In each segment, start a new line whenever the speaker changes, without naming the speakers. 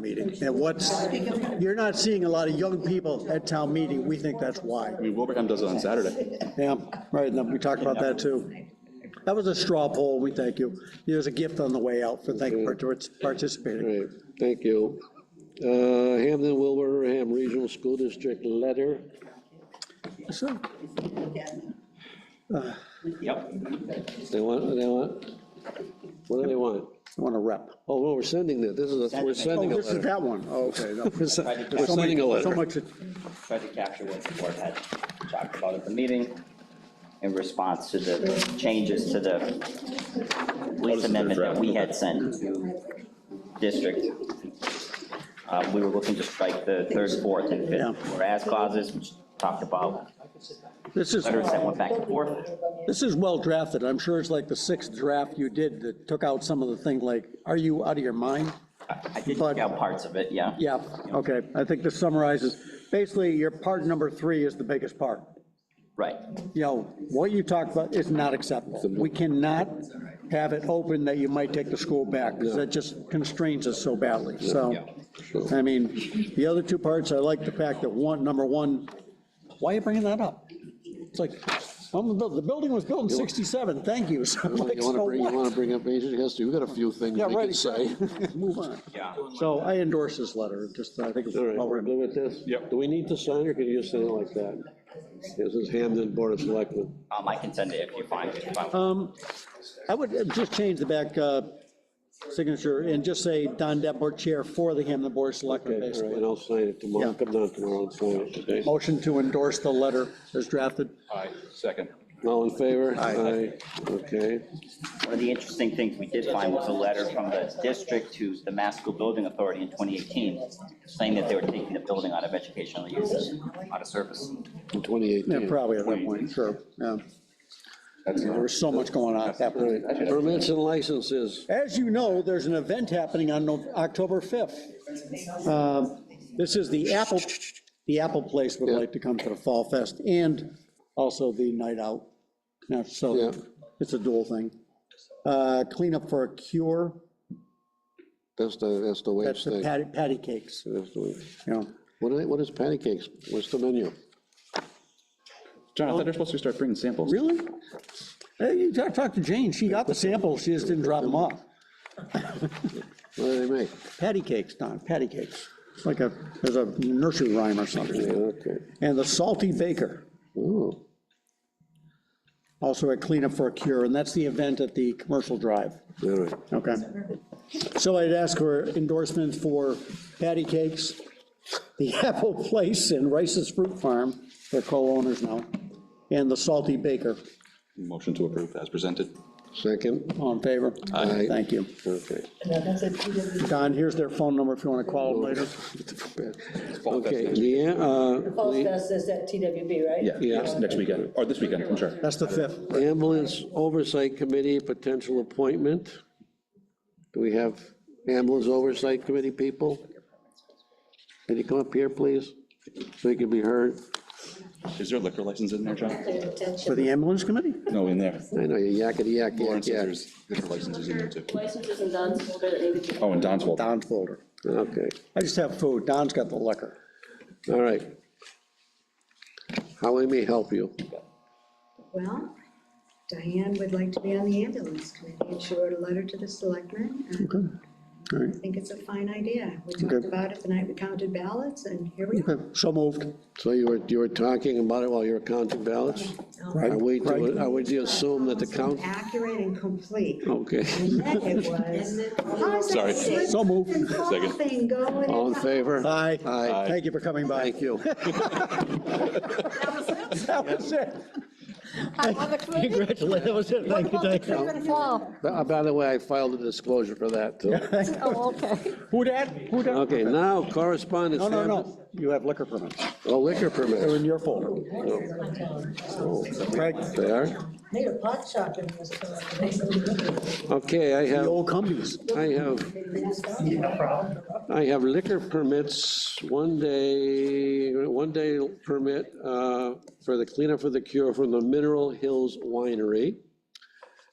meeting. And what's, you're not seeing a lot of young people at town meeting. We think that's why.
I mean, Wilbraham does it on Saturday.
Yeah, right, and we talked about that too. That was a straw poll, we thank you. There's a gift on the way out for thank, for participating.
All right, thank you. Uh, Hampton Wilbraham Regional School District letter.
So,
Yep.
They want, they want, what do they want?
I want to rep.
Oh, no, we're sending that. This is, a- we're
Oh,
sending a
this is
letter.
that one. Oh, Okay. no.
We're se-
Right,
we're
So much-
sending a
So
letter.
much,
Tried to capture what the board had talked about at the meeting in response to the changes to the lease amendment that we had sent to district. Uh, We were looking to strike the third, fourth, and fifth
Yeah.
whereas clauses, which talked about
this is,
letters that went back and forth.
this is well drafted. I'm sure it's like the sixth draft you did that took out some of the thing like, are you out of your mind?
I did pick out parts of it, yeah.
Yeah, okay. I think this summarizes, basically, your part number three is the biggest part.
Right,
you know, what you talked about is not acceptable. We cannot have it open that you might take the school back, because that just constrains us so badly, so. I mean, the other two parts, I like the fact that one, number one, why are you bringing that up? It's like, um, the buil- the building was built in 67, thank you, so I'm like,
You
so
want to bring, you want
what?
to bring up ancient history? We've got a few things
Yeah,
we
right,
could say.
exactly. move on.
yeah.
So I endorse this letter, just, I think it's
All right,
well
we're
written.
good with this?
Yep.
Do we need to sign or can you just send it like that? This is Hampton Board of Selectmen.
Um, I can send it if you find it. if I-
Um, I would just change the back uh, signature and just say Don Deppor Chair for the Hampton Board of
Okay,
Selectmen,
all right,
basically.
and I'll sign it tomorrow.
Yeah. Oh.
Come down tomorrow and sign it today.
Motion to endorse the letter as drafted.
Aye, second.
All in favor?
Aye.
Okay.
One of the interesting things we did find was a letter from the district to the Mass School Building Authority in 2018, saying that they were taking the building out of educational use, out of service.
In 2018.
Yeah, probably at that point, sure. yeah. There was so much going on at that
All
point.
right, permits and licenses.
As you know, there's an event happening on Nov- October 5th. Um, This is the Apple, the Apple Place would like to come to the Fall Fest and also the Night Out. Now, So
Yeah.
it's a dual thing. Uh, Cleanup for a Cure,
That's the, that's the way
that's the
thing.
patty, patty cakes,
That's the way-
you know.
What are, what is patty cakes? What's the menu?
John, I thought they're supposed to start bringing samples.
Really? Hey, You talk talk to Jane, she got the samples, she just didn't drop them off.
What do they make?
Patty cakes, Don, patty cakes. It's like a, there's a nursery rhyme or
Yeah,
something.
okay.
And the Salty Baker,
Oh,
also a cleanup for a cure, and that's the event at the commercial drive.
all right.
Okay. So I'd ask for endorsements for patty cakes, the Apple Place and Rice's Fruit Farm, they're co-owners now, and the Salty Baker.
Motion to approve as presented.
Second?
All in favor?
Aye.
Thank you.
Okay.
Don, here's their phone number if you want to call them later.
Okay, the, uh,
Paul Stas says that TWB, right?
Yeah,
Yeah.
next next weekend, or this weekend, I'm sorry.
That's the fifth.
uh, ambulance oversight committee, potential appointment. Do we have ambulance oversight committee people? Can you come up here, please, so you can be heard?
Is there a liquor license in there, John?
For the ambulance committee?
No, in there.
I know, you yakety yak, yak,
Lawrence says
yak.
there's liquor licenses in there too.
Licenses and Don's folder that needed to
Oh, and Don's fault.
Don's folder.
Okay,
I just have food. Don's got the liquor.
all right. How I may help you?
Well, Diane would like to be on the ambulance committee, and she wrote a letter to the selectmen, and
All right.
I think it's a fine idea. We talked about it the night we counted ballots, and here we are.
Okay, So moved.
So you were, you were talking about it while you were counting ballots?
Right.
Are we
Right.
to, are we to assume that the count, Oh.
Accurate and complete.
okay,
And then it was.
Sorry.
So moved.
Second.
Thing going.
all in
and-
favor?
Aye.
Aye.
Thank you for coming by.
Thank you.
That was it.
I love the committee.
Congratulations. That was it.
What
Thank you.
about the
Thank you.
Cleveland Fall?
By by the way, I filed a disclosure for that, too.
Oh, okay.
Who dat? Who dat?
Okay, now correspondence.
No, no,
Hampton-
no. You have liquor permits.
Oh, liquor
They're
permits.
in your folder. Right.
They are?
Made a pot shop in this town.
Okay, I
The
have,
old companies.
I have, I have liquor permits, one day, one day permit uh, for the cleanup for the cure from the Mineral Hills Winery.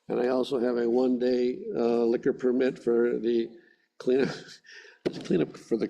And I also have a one-day uh, liquor permit for the cleanup, Cleanup for the